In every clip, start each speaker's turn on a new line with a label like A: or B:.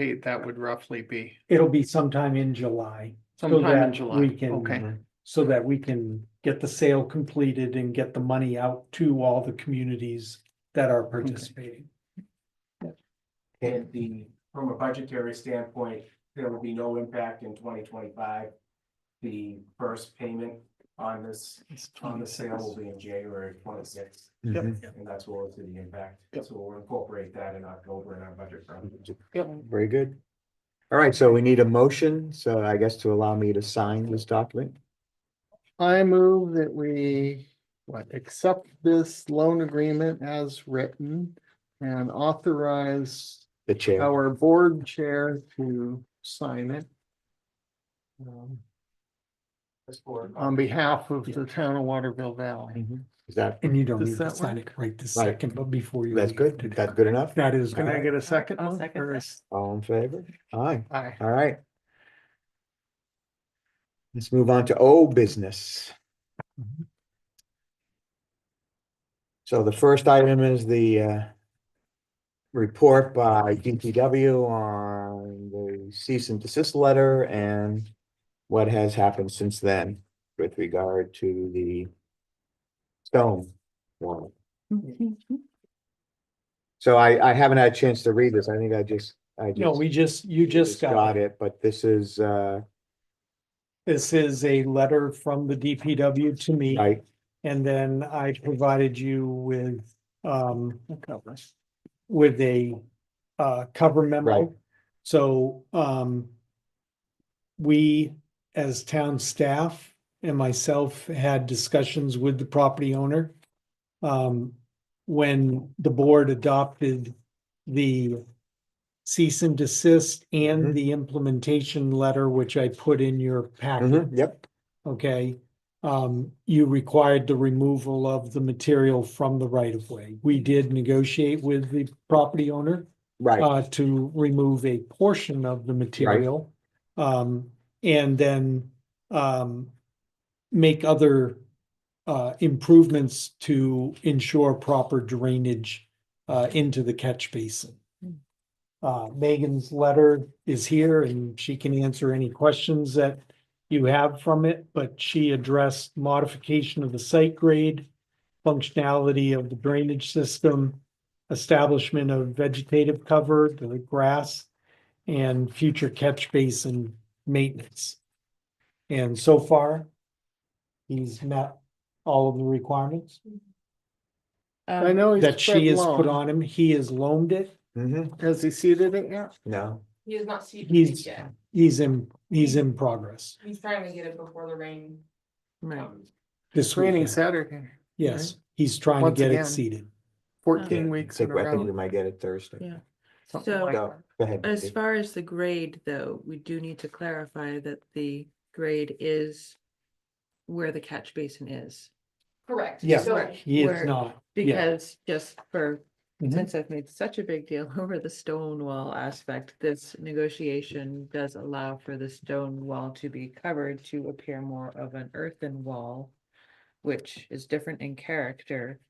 A: anticipate that would roughly be?
B: It'll be sometime in July, so
A: Sometime in
B: that
A: July,
B: we can.
A: okay,
B: So that we can get the sale completed and get the money out to all the communities that are participating.
C: And the, from a budgetary standpoint, there will be no impact in twenty twenty-five. The first payment on this, on the sale will be in January twenty-sixth,
D: Mm-hmm.
C: and that's where we'll see the impact.
A: Yep.
C: So we'll incorporate that in October in our budget. process.
D: Very good. All right, so we need a motion, so I guess to allow me to sign this document.
A: I move that we, what, accept this loan agreement as written and authorize
D: The
B: Oh.
D: chair,
A: our board chair to sign it. um,
C: This board-
A: On behalf of the town of Waterville Valley.
D: is that,
B: And you don't
A: Does
B: need to
A: that
B: sign it right this
D: Right.
B: second, but before you.
D: that's
B: leave
D: good,
B: today.
D: that's good enough?
B: That is.
A: Can I
B: good.
A: get a second
E: I'll
A: one?
E: second
A: Or
E: that.
A: is-
D: All in favor? Aye,
A: Aye.
D: all right. Let's move on to old business.
B: Mhm.
D: So the first item is the uh report by DPW on the cease and desist letter and what has happened since then with regard to the stone warrant. So I I haven't had a chance to read this. I think I just, I just.
B: No, we just, you just got it.
D: it, but this is uh,
B: This is a letter from the DPW to me.
D: I,
B: And then I provided you with, um,
A: Okay.
B: with a, uh, cover
D: Right.
B: memo. So, um, we, as town staff and myself, had discussions with the property owner. Um, when the board adopted the cease and desist
D: Mhm.
B: and the implementation letter, which I put in your packet.
D: mhm, yep,
B: Okay, um, you required the removal of the material from the right of way. We did negotiate with the property owner
D: right,
B: uh, to remove a portion of the material. Um, and then, um, make other, uh, improvements to ensure proper drainage, uh, into the catch basin. Uh, Megan's letter is here and she can answer any questions that you have from it, but she addressed modification of the site grade, functionality of the drainage system, establishment of vegetative cover, the grass, and future catch basin maintenance. And so far, he's met all of the requirements
E: Um,
A: I know. he's
B: that
A: spread
B: she has put
A: loan.
B: on him. He has loaned it.
D: mhm,
A: Has he seeded it yet?
D: no,
E: He has not seen
B: He's-
E: it yet.
B: He's in, he's in progress
E: He's trying to get it before the rain. comes.
B: this
A: Raining
B: weekend.
A: Saturday,
B: Yes, he's trying to
A: Once
B: get
A: again.
B: it seated.
A: fourteen
E: Uh,
D: Yeah, I
A: weeks in
D: think,
A: a
D: I think we
A: row.
D: might get it Thursday.
F: Yeah.
A: something
F: So-
A: like
D: So,
A: that.
D: go ahead.
F: As
D: Dave.
F: far as the grade, though, we do need to clarify that the grade is where the catch basin is.
E: Correct.
B: Yeah.
E: So
B: He is
F: Where-
B: not, yeah,
F: Because just for,
A: Mm-hmm.
B: Mhm.
F: since I've made such a big deal over the stone wall aspect, this negotiation does allow for the stone wall to be covered to appear more of an earthen wall, which is different in character.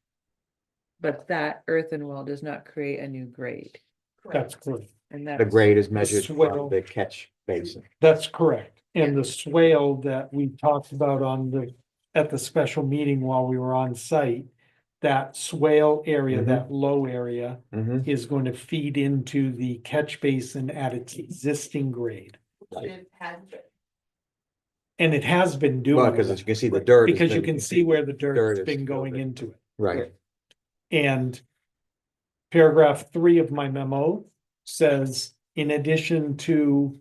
F: But that earthen wall does not create a new grade,
B: that's correct.
F: and that.
D: The
F: was-
D: grade is measured
B: swell.
D: from the catch basin,
B: That's correct. And the swale that we talked about on the, at the special meeting while we were on site, that swale area,
D: Mhm.
B: that low area
D: mhm,
B: is going to feed into the catch basin at its existing grade.
E: It has been.
B: And it has been doing.
D: well, because
B: that,
D: as you can see the dirt. has
B: Because you
D: been-
B: can see where the
D: dirt
B: dirt's
D: is
B: been going
D: building.
B: into it.
D: Right,
B: And paragraph three of my memo says, in addition to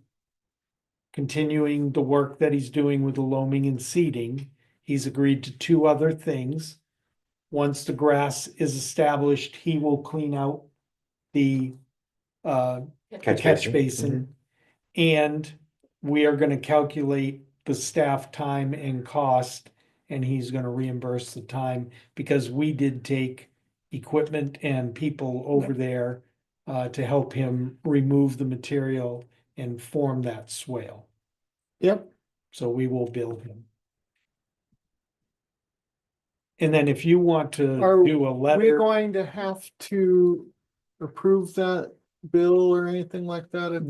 B: continuing the work that he's doing with the loaming and seeding, he's agreed to two other things. Once the grass is established, he will clean out the uh, the
D: Catch
B: catch
D: basin. Mm-hmm.
B: basin. And we are gonna calculate the staff time and cost, and he's gonna reimburse the time, because we did take equipment and people over there uh, to help him remove the material and form that swale,
A: Yep,
B: so we will bill him. And then if you want to
A: Are
B: do a
A: we're
B: letter,
A: going to have to approve that bill or anything like that at